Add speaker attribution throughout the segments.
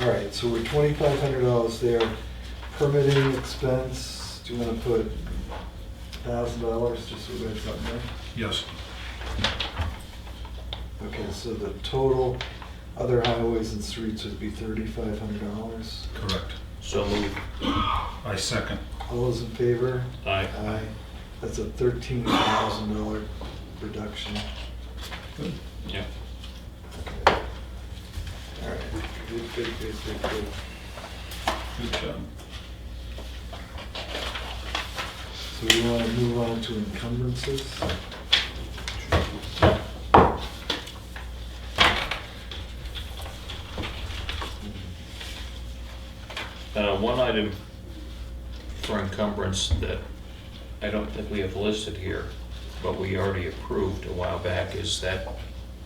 Speaker 1: All right, so we're twenty-five hundred dollars there. Permitting expense, do you wanna put thousand dollars just so we have something there?
Speaker 2: Yes.
Speaker 1: Okay, so the total other highways and streets would be thirty-five hundred dollars.
Speaker 2: Correct.
Speaker 3: So move.
Speaker 2: I second.
Speaker 1: All those in favor?
Speaker 3: Aye.
Speaker 1: Aye. That's a thirteen thousand dollar reduction.
Speaker 2: Good.
Speaker 3: Yeah.
Speaker 1: Okay. All right, good, good, good, good, good.
Speaker 2: Good job.
Speaker 1: So we wanna move on to encumbrances?
Speaker 3: Uh, One item for encumbrance that I don't think we have listed here, but we already approved a while back, is that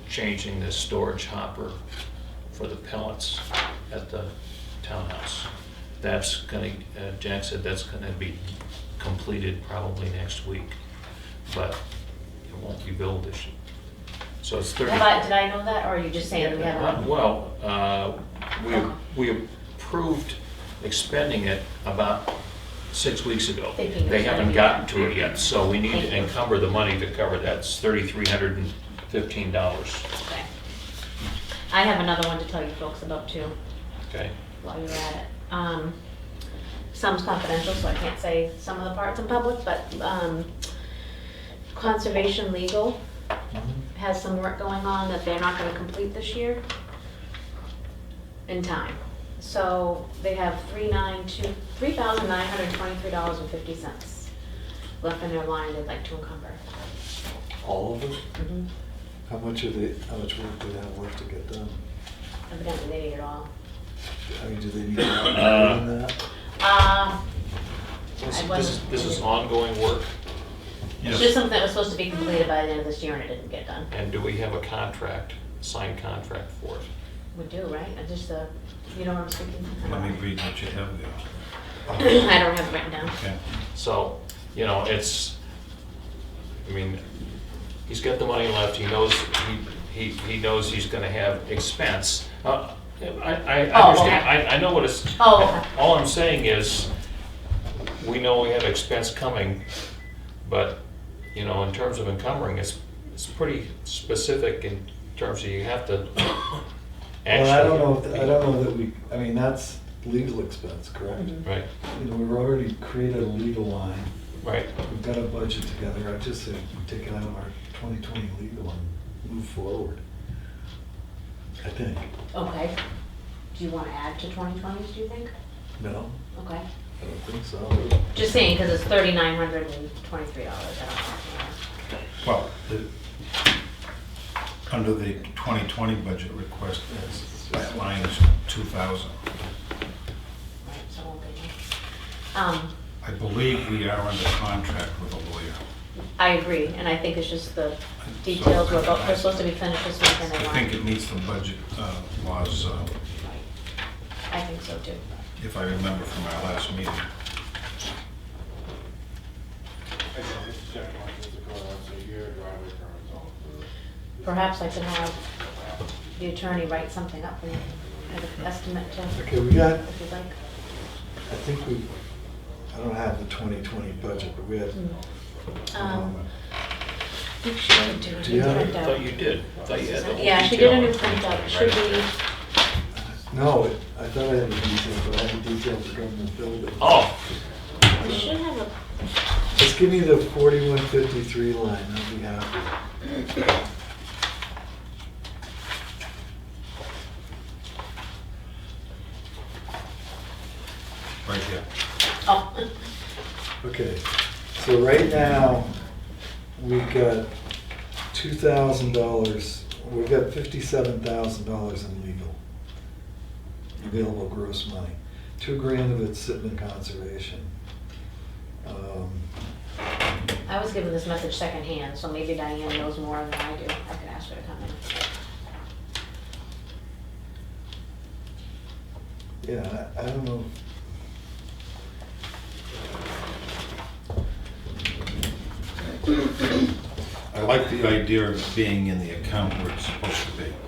Speaker 3: changing the storage hopper for the pellets at the townhouse. That's gonna, uh, Jack said that's gonna be completed probably next week, but it won't be billed this year. So it's 30.
Speaker 4: Am I, did I know that, or are you just saying we
Speaker 3: Uh,
Speaker 4: haven't?
Speaker 3: Well, uh, we we approved expending it about six weeks ago.
Speaker 4: Thinking it's
Speaker 3: They haven't
Speaker 4: gonna be-
Speaker 3: gotten to it yet, so we need to
Speaker 4: Thank you.
Speaker 3: encumber the money to cover that. It's $3,315,
Speaker 4: Okay. I have another one to tell you folks about too,
Speaker 3: okay?
Speaker 4: while you're at it. Um, Some's confidential, so I can't say some of the parts in public, but um, Conservation Legal has some work going on that they're not gonna complete this year in time. So they have three nine two, three thousand nine hundred twenty-three dollars and fifty cents left in their line they'd like to encumber.
Speaker 1: All of them?
Speaker 4: Mhm.
Speaker 1: How much of the, how much work do they have left to get done?
Speaker 4: Evidently, they need it all.
Speaker 1: I mean, do they need to have more than that?
Speaker 4: Uh,
Speaker 3: This
Speaker 4: I
Speaker 3: this is
Speaker 4: wasn't-
Speaker 3: this is ongoing work,
Speaker 4: it's just
Speaker 2: Yes.
Speaker 4: something that was supposed to be completed by the end of this year and it didn't get done.
Speaker 3: and do we have a contract, signed contract for it?
Speaker 4: We do, right? I just, uh, you know what I'm speaking
Speaker 2: Let me
Speaker 4: about?
Speaker 2: read what you have there.
Speaker 4: I don't have it written down.
Speaker 2: Okay.
Speaker 3: So, you know, it's, I mean, he's got the money left, he knows, he, he he knows he's gonna have expense. Uh, I, I I
Speaker 4: Oh,
Speaker 3: understand,
Speaker 4: okay.
Speaker 3: I, I know what it's,
Speaker 4: Oh, okay.
Speaker 3: all I'm saying is, we know we have expense coming, but, you know, in terms of encumbering, it's, it's pretty specific in terms of you have to actually.
Speaker 1: Well, I don't know, if- I don't know that we, I mean, that's legal expense, correct?
Speaker 4: Mhm.
Speaker 3: Right,
Speaker 1: You know, we've already created a legal line,
Speaker 3: right,
Speaker 1: we've got a budget together, I just say, take it out of our twenty twenty legal and move forward. I think,
Speaker 4: Okay. Do you want to add to 2020s, do you think?
Speaker 1: no,
Speaker 4: Okay.
Speaker 1: I don't think so.
Speaker 4: Just saying, because it's $3,923. I
Speaker 2: Well, the, under the 2020 budget request, that's- that line is 2,000.
Speaker 4: don't know. Right, so it won't be there. Um,
Speaker 2: I believe we are under contract with a lawyer.
Speaker 4: I agree, and I think it's just the details were, about- we're supposed to be finished this week and they
Speaker 2: I
Speaker 4: weren't.
Speaker 2: think it meets the budget uh, laws, uh,
Speaker 4: Right. I think so too.
Speaker 2: if I remember from our last meeting.
Speaker 5: I can just check my physical once a year, driveway permits all approved.
Speaker 4: Perhaps I can have the attorney write something up and have an estimate to,
Speaker 1: Okay, we got,
Speaker 4: if you'd like.
Speaker 1: I think we, I don't have the twenty twenty budget, but we had.
Speaker 4: Mm.
Speaker 1: Hmm.
Speaker 4: Um, I think she did do it.
Speaker 1: Do you have-
Speaker 3: I thought you did, I thought you had the whole
Speaker 4: Yeah, she did a
Speaker 3: detail
Speaker 4: new
Speaker 3: on
Speaker 4: printout, it
Speaker 3: 2020,
Speaker 4: should be,
Speaker 3: right.
Speaker 1: No, it- I thought I had the detail, but I had the detail for government building.
Speaker 3: Oh,
Speaker 4: we should have a,
Speaker 1: Just give me the forty-one fifty-three line, I'll be happy.
Speaker 2: Right here.
Speaker 4: oh,
Speaker 1: Okay, so right now, we've got two thousand dollars, we've got fifty-seven thousand dollars in legal. Available gross money. Two grand of it's sitting in conservation. Um,
Speaker 4: I was given this message secondhand, so maybe Diane knows more than I do. I could ask her to come in.
Speaker 1: Yeah, I I don't know.
Speaker 2: I like the idea of being in the account where it's supposed to be.